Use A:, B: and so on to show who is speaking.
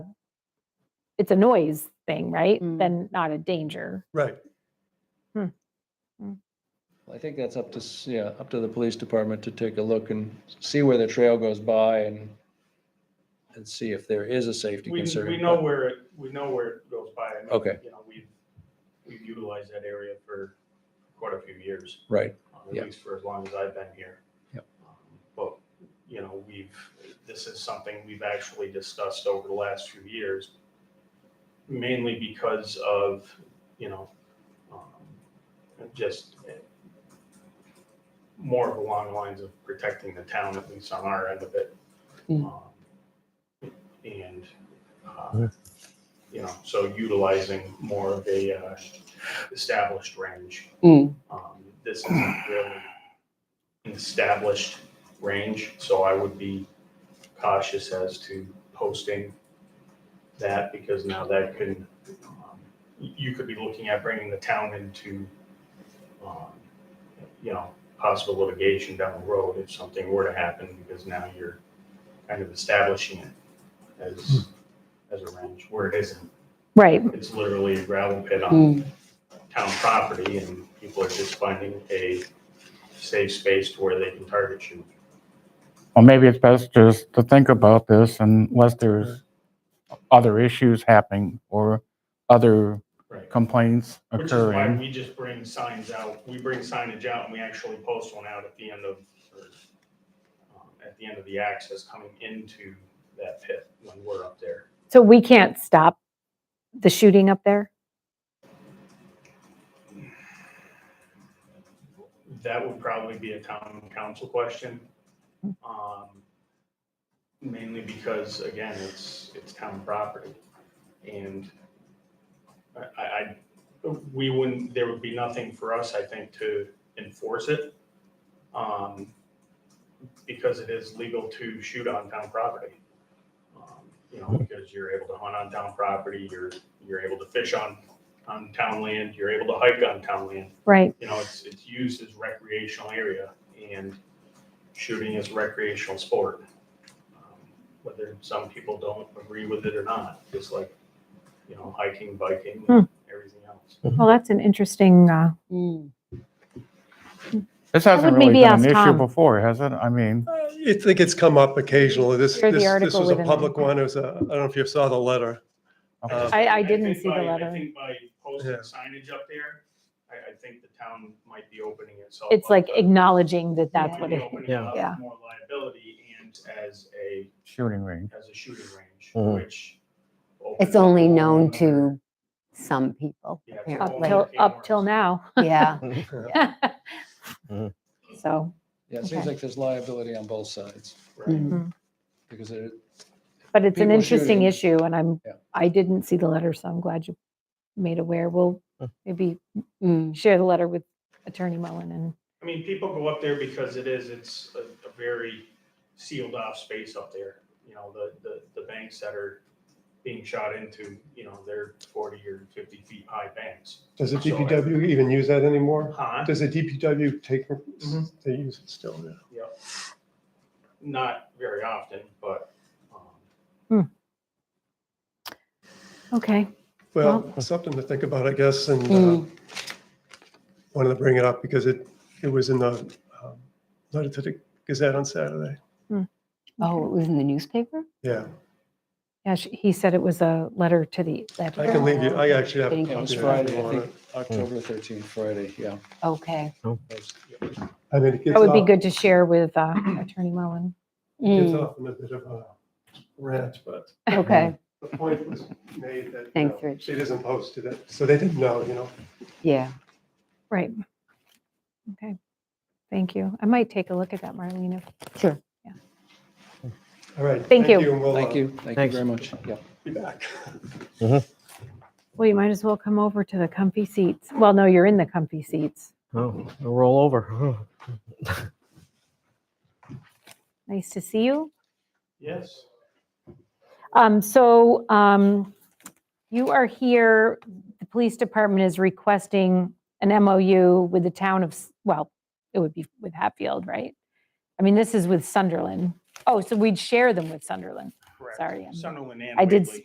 A: it's a noise thing, right?
B: Mm.
A: Then not a danger.
C: Right.
D: I think that's up to, s- yeah, up to the police department to take a look and see where the trail goes by and, and see if there is a safety
E: We,
D: concern.
E: we know where it, we know where it goes by. I mean,
D: Okay.
E: You know, we've, we've utilized that area for quite a few years,
D: Right,
E: uh,
D: Yeah.
E: at least for as long as I've been here.
D: Yep.
E: Um, But, you know, we've, this is something we've actually discussed over the last few years, mainly because of, you know, um, just eh, more along the lines of protecting the town, at least on our end of it.
D: Hmm.
B: Mm.
E: Um, and, uh, you know, so utilizing more of a uh, established range.
B: Mm.
E: Um, This isn't really an established range, so I would be cautious as to posting that because now that could, um, you could be looking at bringing the town into, um, you know, possible litigation down the road if something were to happen because now you're kind of establishing it as, as a range where it isn't.
A: Right.
E: It's literally a gravel pit on
B: Mm.
E: town property and people are just finding a safe space to where they can target you.
F: Well, maybe it's best just to think about this unless there's other issues happening or other
E: Right.
F: complaints
E: Which is why
F: occurring.
E: we just bring signs out, we bring signage out and we actually post one out at the end of, or, um, at the end of the access coming into that pit when we're up there.
A: So we can't stop the shooting up there.
E: That would probably be a town council question. um, Mainly because, again, it's, it's town property. And I, I, I- we wouldn't, there would be nothing for us, I think, to enforce it. um, Because it is legal to shoot on town property. Um, You know, because you're able to hunt on town property, you're, you're able to fish on, on town land, you're able to hike on town land
A: Right.
E: you know, it's, it's used as recreational area and shooting is recreational sport. Um, Whether some people don't agree with it or not, just like, you know, hiking, biking,
A: Hmm.
E: everything else.
A: Well, that's an interesting. Uh,
B: Mm.
F: This
A: would
F: hasn't really
A: maybe
F: been an
A: ask
F: issue
A: Tom.
F: before, has it? I mean,
C: I think it's come up occasionally. This,
A: Here's the
C: this, this
A: article
C: was a
A: with an
C: public
A: article.
C: one. It was a, I don't know if you saw the letter.
F: okay.
C: Um,
A: I, I didn't
E: think
A: see the
E: by- I
A: letter.
E: think by posting
C: Yeah.
E: signage up there, I, I think the town might be opening itself.
A: It's
E: up
A: like
E: to-
A: acknowledging that that's
E: might
A: what
E: be
A: it.
E: opening
G: Yeah.
E: up
A: Yeah.
E: More liability and as a,
F: shooting range.
E: as a shooting range,
G: Mhm.
E: which. opens
B: It's
E: up a
B: only
E: whole
B: known
E: nother-
B: to some people,
E: Yeah, it's a
A: Up
E: whole
B: apparently.
A: till
E: nother can of
A: up till
E: worms.
A: now.
B: Yeah.
G: Mhm.
A: so,
D: yeah, it seems
A: Okay.
D: like there's liability on both sides,
E: Right.
B: Mm.
D: because it,
A: but it's an
D: People
A: interesting
D: shooting.
A: issue, and I'm
D: Yeah.
A: I didn't see the letter, so I'm glad you made aware. We'll maybe
B: Mm.
A: share the letter with Attorney Mullen and
E: I mean, people go up there because it is, it's a, a very sealed off space up there. You know, the, the, the banks that are being shot into, you know, they're forty or fifty feet high banks.
C: Does the
E: So I-
C: DPW even use that anymore?
E: Huh?
C: Does the DPW take,
D: Mm-hmm.
E: Mhm.
C: they use it still now?
E: Not very often, but, um,
A: okay.
C: Well, something to think about, I guess, and uh,
B: Mm.
C: wanted to bring it up because it, it was in the um, letter to the Gazette on Saturday.
B: Oh, it was in the newspaper?
C: Yeah,
A: Yeah, she, he said it was a letter to the.
C: I can leave you, I actually have. a
B: Getting
C: copy
D: it was
C: of
D: Friday,
C: if you
D: I
C: want
D: think, October thirteenth, Friday, yeah.
B: Okay.
C: it. I mean, it gets
A: That would be
C: off,
A: good to share with uh, Attorney Mullen.
C: gets
B: Mm,
C: off in a bit of a rant, but
B: Okay,
C: the point was made that. you
B: Thanks,
C: know,
B: Rich.
C: It isn't posted, it, so they didn't know, you know.
B: yeah.
A: Right. Okay. Thank you. I might take a look at that, Marlene. if-
C: All right.
A: Thank you.
C: and we'll,
D: Thank
C: uh,
D: you, thank you
G: Thanks.
D: very much, yeah.
C: Be back.
A: Well, you might as well come over to the comfy seats. Well, no, you're in the comfy seats.
G: Oh, I'll roll over.
A: Nice to see you.
E: yes.
A: Um, so, um, you are here, the police department is requesting an MOU with the town of, S- well, it would be with Hatfield, right? I mean, this is with Sunderland. Oh, so we'd share them with Sunderland.
E: correct.
A: Sorry, I'm-
E: Sunderland and
A: I did
E: Whately.